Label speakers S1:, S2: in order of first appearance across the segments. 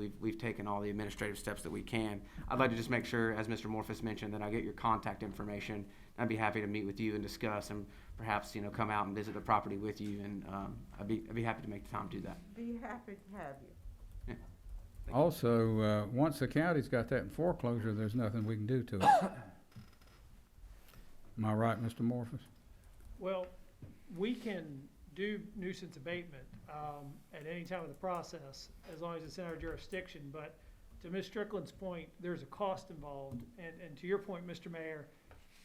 S1: We've, we've taken all the administrative steps that we can. I'd like to just make sure, as Mr. Morphus mentioned, that I get your contact information. I'd be happy to meet with you and discuss and perhaps, you know, come out and visit the property with you and, um, I'd be, I'd be happy to make the time to do that.
S2: Be happy to have you.
S3: Also, uh, once the county's got that in foreclosure, there's nothing we can do to it. Am I right, Mr. Morphus?
S4: Well, we can do nuisance abatement um, at any time of the process, as long as it's in our jurisdiction. But to Ms. Strickland's point, there's a cost involved. And, and to your point, Mr. Mayor,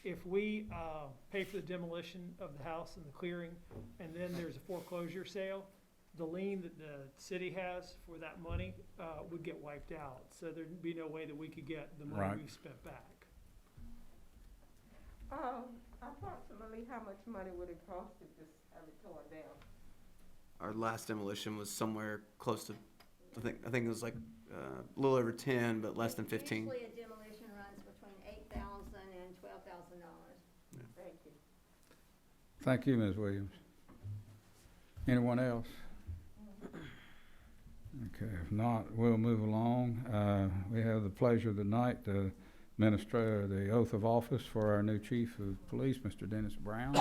S4: if we uh, pay for the demolition of the house and the clearing, and then there's a foreclosure sale, the lien that the city has for that money uh, would get wiped out. So there'd be no way that we could get the
S3: Right.
S4: money we spent back.
S2: Um, approximately how much money would it cost to just have it torn down?
S1: Our last demolition was somewhere close to, I think, I think it was like, uh, a little over ten, but less than fifteen.
S5: Usually a demolition runs between eight thousand and twelve thousand dollars.
S2: Thank you.
S3: Thank you, Ms. Williams. Anyone else? Okay, if not, we'll move along. Uh, We have the pleasure tonight to administer the oath of office for our new chief of police, Mr. Dennis Brown.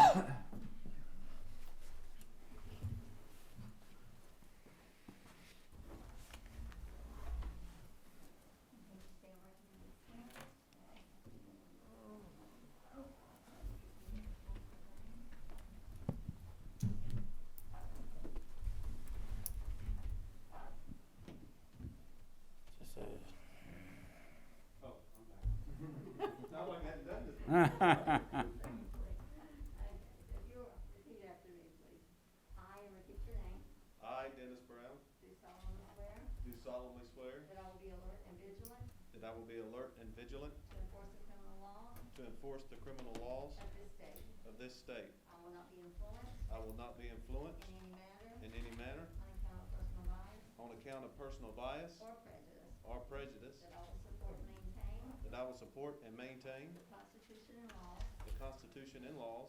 S5: Okay, so if you'll repeat after me, please. I, and repeat your name,
S6: I, Dennis Brown,
S5: do solemnly swear
S6: do solemnly swear
S5: that I will be alert and vigilant
S6: that I will be alert and vigilant
S5: to enforce the criminal law
S6: to enforce the criminal laws
S5: of this state.
S6: of this state.
S5: I will not be influenced
S6: I will not be influenced
S5: in any matter
S6: in any manner
S5: on account of personal bias
S6: on account of personal bias
S5: or prejudice,
S6: or prejudice,
S5: that I will support and maintain
S6: that I will support and maintain
S5: the Constitution and laws
S6: the Constitution and laws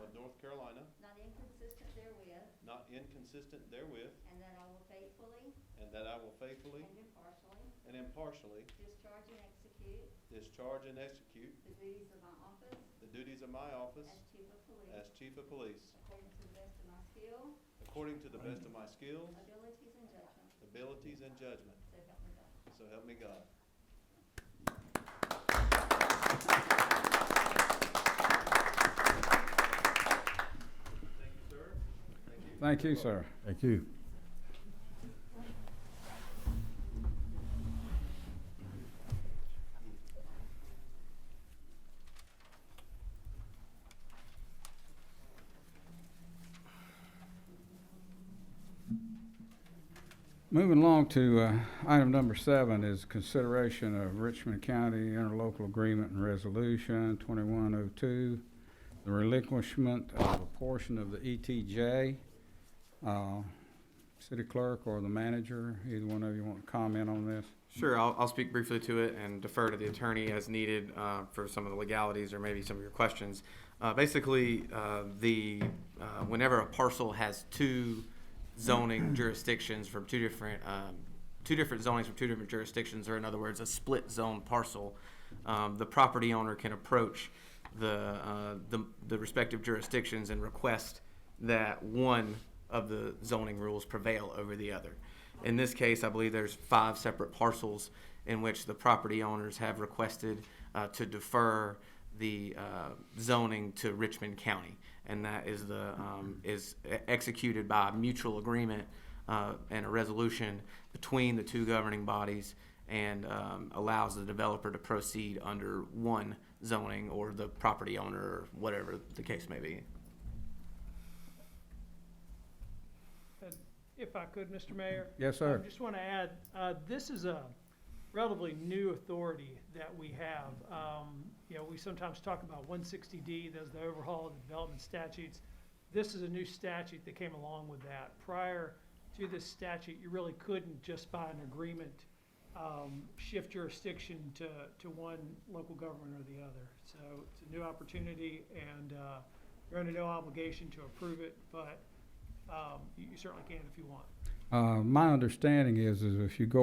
S5: of North
S6: of
S5: Carolina,
S6: North Carolina,
S5: not inconsistent therewith,
S6: not inconsistent therewith,
S5: and that I will faithfully
S6: and that I will faithfully
S5: and impartially
S6: and impartially
S5: Discharge and execute
S6: discharge and execute
S5: the duties of my office
S6: the duties of my office
S5: as chief of
S6: as
S5: police
S6: chief of police,
S5: according to the best of my skill,
S6: according to the best of my skills,
S5: abilities, and judgment.
S6: abilities, and judgment.
S5: So help me God.
S6: So help me God. Thank you, sir.
S3: Thank you, sir.
S7: Thank you.
S3: Moving along to uh, item number seven is consideration of Richmond County interlocal agreement and resolution 2102, the relinquishment of a portion of the E ETJ. Uh, City clerk or the manager, either one of you want to comment on this?
S1: Sure, I'll, I'll speak briefly to it and defer to the attorney as needed uh, for some of the legalities or maybe some of your questions. Uh, Basically, uh, the, uh, whenever a parcel has two zoning jurisdictions from two different, um, two different zonings from two different jurisdictions, or in other words, a split zone parcel, um, the property owner can approach the, uh, the the respective jurisdictions and request that one of the zoning rules prevail over the other. In this case, I believe there's five separate parcels in which the property owners have requested uh, to defer the uh, zoning to Richmond County, and that is the um, is e- executed by mutual agreement uh, and a resolution between the two governing bodies, and um, allows the developer to proceed under one zoning or the property owner, or whatever the case may be.
S4: If I could, Mr. Mayor?
S3: Yes,
S4: I
S3: sir.
S4: just want to add, uh, this is a relatively new authority that we have. Um, you know, we sometimes talk about one sixty D, that's the overhaul of the development statutes. This is a new statute that came along with that. Prior to this statute, you really couldn't just by an agreement, um, shift jurisdiction to, to one local government or the other. So it's a new opportunity and, uh, you're under no obligation to approve it, but, um, you you certainly can if you want.
S3: Uh, My understanding is, is if you go